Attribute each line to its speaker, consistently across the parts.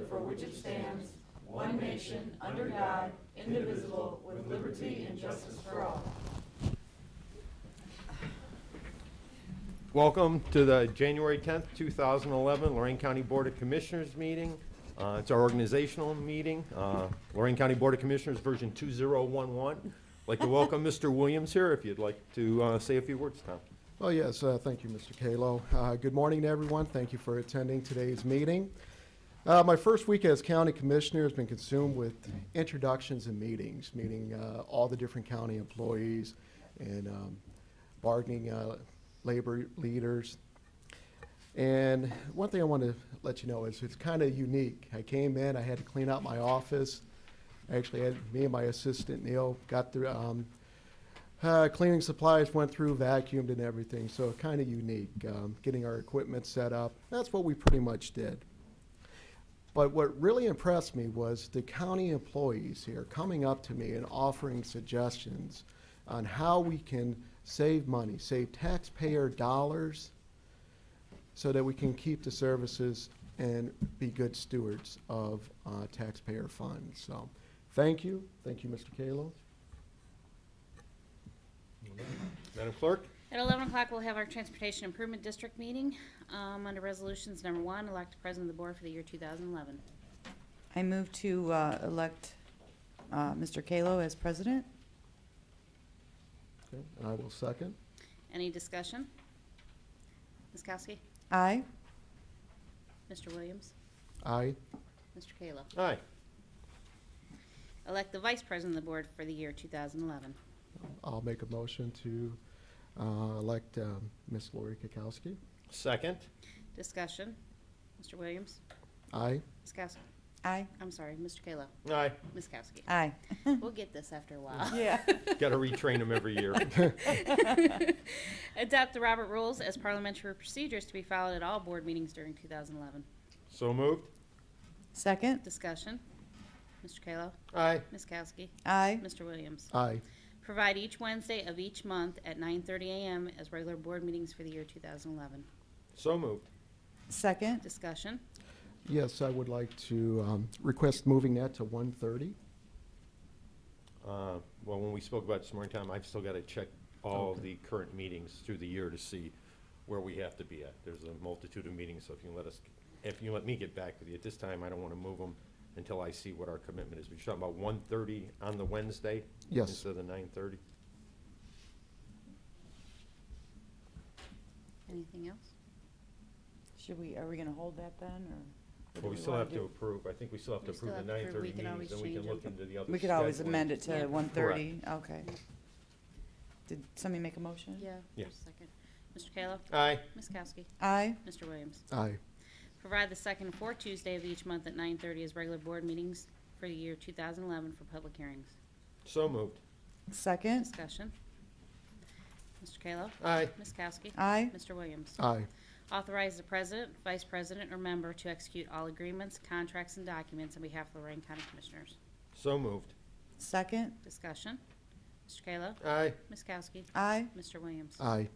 Speaker 1: which it stands, one nation, under God, indivisible, with liberty and justice for all.
Speaker 2: Welcome to the January 10th, 2011 Lorraine County Board of Commissioners meeting. Uh, It's our organizational meeting, uh, Lorraine County Board of Commissioners, version 2011. I'd Like to welcome Mr. Williams here, if you'd like to uh, say a few words, Tom.
Speaker 3: Well, yes, uh, thank you, Mr. Kalo. Uh, Good morning to everyone. Thank you for attending today's meeting. Uh, My first week as county commissioner has been consumed with introductions and meetings, meeting uh, all the different county employees and um, bargaining uh, labor leaders. And one thing I want to let you know is it's kind of unique. I came in, I had to clean out my office. Actually, I had- me and my assistant Neil got through, um, uh, cleaning supplies went through, vacuumed and everything, so kind of unique. Um, getting our equipment set up, that's what we pretty much did. But what really impressed me was the county employees here coming up to me and offering suggestions on how we can save money, save taxpayer dollars, so that we can keep the services and be good stewards of uh, taxpayer funds. So, thank you. Thank you, Mr. Kalo.
Speaker 2: Madam Clerk?
Speaker 4: At 11 o'clock, we'll have our Transportation Improvement District meeting. Um, Under Resolutions Number One, elect the President of the Board for the year 2011.
Speaker 5: I move to uh, elect uh, Mr. Kalo as president.
Speaker 3: Okay, and I will second.
Speaker 4: Any discussion? Ms. Kowski?
Speaker 5: Aye.
Speaker 4: Mr. Williams?
Speaker 3: Aye.
Speaker 4: Mr. Kayla?
Speaker 2: Aye.
Speaker 4: Elect the Vice President of the Board for the year 2011.
Speaker 3: I'll make a motion to uh, elect um, Ms. Lori Kukowski.
Speaker 2: Second?
Speaker 4: Discussion? Mr. Williams?
Speaker 3: Aye.
Speaker 4: Ms. Kowski?
Speaker 5: Aye.
Speaker 4: I'm sorry, Mr. Kayla?
Speaker 2: Aye.
Speaker 4: Ms. Kowski?
Speaker 5: Aye.
Speaker 4: We'll get this after a while.
Speaker 5: Yeah.
Speaker 2: Got to retrain them every year.
Speaker 4: Adopt the Robert Rules as parliamentary procedures to be followed at all board meetings during 2011.
Speaker 2: So moved?
Speaker 5: Second.
Speaker 4: Discussion? Mr. Kayla?
Speaker 2: Aye.
Speaker 4: Ms. Kowski?
Speaker 5: Aye.
Speaker 4: Mr. Williams?
Speaker 3: Aye.
Speaker 4: Provide each Wednesday of each month at 9:30 a.m. as regular board meetings for the year 2011.
Speaker 2: So moved.
Speaker 5: Second.
Speaker 4: Discussion?
Speaker 3: Yes, I would like to um, request moving that to 1:30.
Speaker 2: Uh, Well, when we spoke about it this morning, Tom, I've still got to check all of the current meetings through the year to see where we have to be at. There's a multitude of meetings, so if you let us, if you let me get back with you, at this time, I don't want to move them until I see what our commitment is. We're talking about 1:30 on the Wednesday?
Speaker 3: Yes.
Speaker 2: Instead of the 9:30?
Speaker 4: Anything else?
Speaker 5: Should we, are we going to hold that then, or? what do
Speaker 2: But we still have
Speaker 5: wanna
Speaker 2: to
Speaker 5: do?
Speaker 2: approve, I think we still have to
Speaker 4: We still
Speaker 2: approve the
Speaker 4: have to approve. We
Speaker 2: 9:30
Speaker 4: can
Speaker 2: meetings,
Speaker 4: always
Speaker 2: then we can
Speaker 4: change 'em.
Speaker 2: look into the other.
Speaker 5: We could always
Speaker 2: scheduling.
Speaker 5: amend it to
Speaker 4: Yeah.
Speaker 5: 1:30. Okay. Did somebody make a motion?
Speaker 4: Yeah.
Speaker 2: Yeah.
Speaker 4: just a Second. Mr. Kayla?
Speaker 2: Aye,
Speaker 4: Ms. Kowski?
Speaker 5: Aye.
Speaker 4: Mr. Williams?
Speaker 3: Aye.
Speaker 4: Provide the second and fourth Tuesday of each month at 9:30 as regular board meetings for the year 2011 for public hearings.
Speaker 2: so moved.
Speaker 5: Second.
Speaker 4: Discussion? Mr. Kayla?
Speaker 2: Aye,
Speaker 4: Ms. Kowski?
Speaker 5: Aye.
Speaker 4: Mr. Williams?
Speaker 3: Aye.
Speaker 4: Authorize the president, vice president, or member to execute all agreements, contracts, and documents on behalf of Lorraine County Commissioners.
Speaker 2: so moved.
Speaker 5: Second.
Speaker 4: Discussion. Mr. Kayla.
Speaker 2: Aye,
Speaker 4: Ms. Kowski.
Speaker 5: Aye.
Speaker 4: Mr. Williams.
Speaker 3: Aye.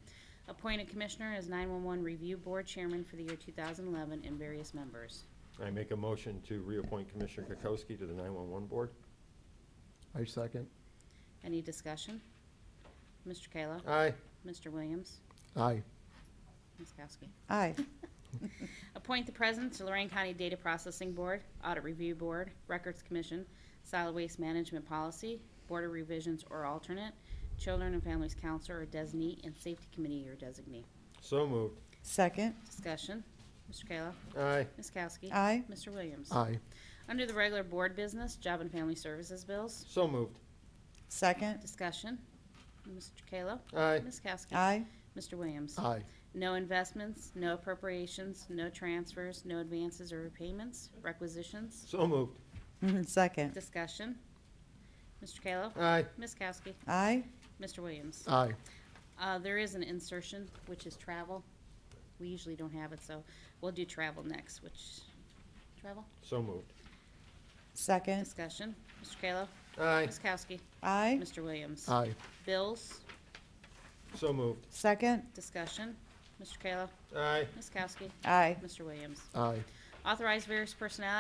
Speaker 4: Appointed Commissioner as 911 Review Board Chairman for the year 2011 and various members.
Speaker 2: I make a motion to reappoint Commissioner Kokoski to the 911 Board.
Speaker 3: I second.
Speaker 4: Any discussion? Mr. Kayla.
Speaker 2: Aye,
Speaker 4: Mr. Williams.
Speaker 3: Aye.
Speaker 4: Ms. Kowski.
Speaker 5: Aye.
Speaker 4: Appoint the President to Lorraine County Data Processing Board, Audit Review Board, Records Commission, Solid Waste Management Policy, Board of Revisions or alternate, Children and Families Counselor or designee, and Safety Committee or designee.
Speaker 2: so moved.
Speaker 5: Second.
Speaker 4: Discussion. Mr. Kayla.
Speaker 2: Aye,
Speaker 4: Ms. Kowski.
Speaker 5: Aye.
Speaker 4: Mr. Williams.
Speaker 3: Aye.
Speaker 4: Under the regular board business, Job and Family Services bills.
Speaker 2: so moved.
Speaker 5: Second.
Speaker 4: Discussion. Mr. Kayla.
Speaker 2: Aye,
Speaker 4: Ms. Kowski.
Speaker 5: Aye.
Speaker 4: Mr. Williams.
Speaker 3: Aye.
Speaker 4: No investments, no appropriations, no transfers, no advances or repayments, requisitions.
Speaker 2: so moved.
Speaker 5: Second.
Speaker 4: Discussion. Mr. Kayla.
Speaker 2: Aye,
Speaker 4: Ms. Kowski.
Speaker 5: Aye.
Speaker 4: Mr. Williams.
Speaker 3: Aye.
Speaker 4: Uh, There is an insertion, which is travel. We usually don't have it, so we'll do travel next, which, travel?
Speaker 2: so moved.
Speaker 5: Second.
Speaker 4: Discussion. Mr. Kayla.
Speaker 2: Aye,
Speaker 4: Ms. Kowski.
Speaker 5: Aye.
Speaker 4: Mr. Williams.
Speaker 3: Aye.
Speaker 4: Bills.
Speaker 2: so moved.
Speaker 5: Second.
Speaker 4: Discussion. Mr. Kayla.
Speaker 2: Aye,
Speaker 4: Ms. Kowski.
Speaker 5: Aye.
Speaker 4: Mr. Williams.
Speaker 3: Aye.
Speaker 4: Authorize various personnel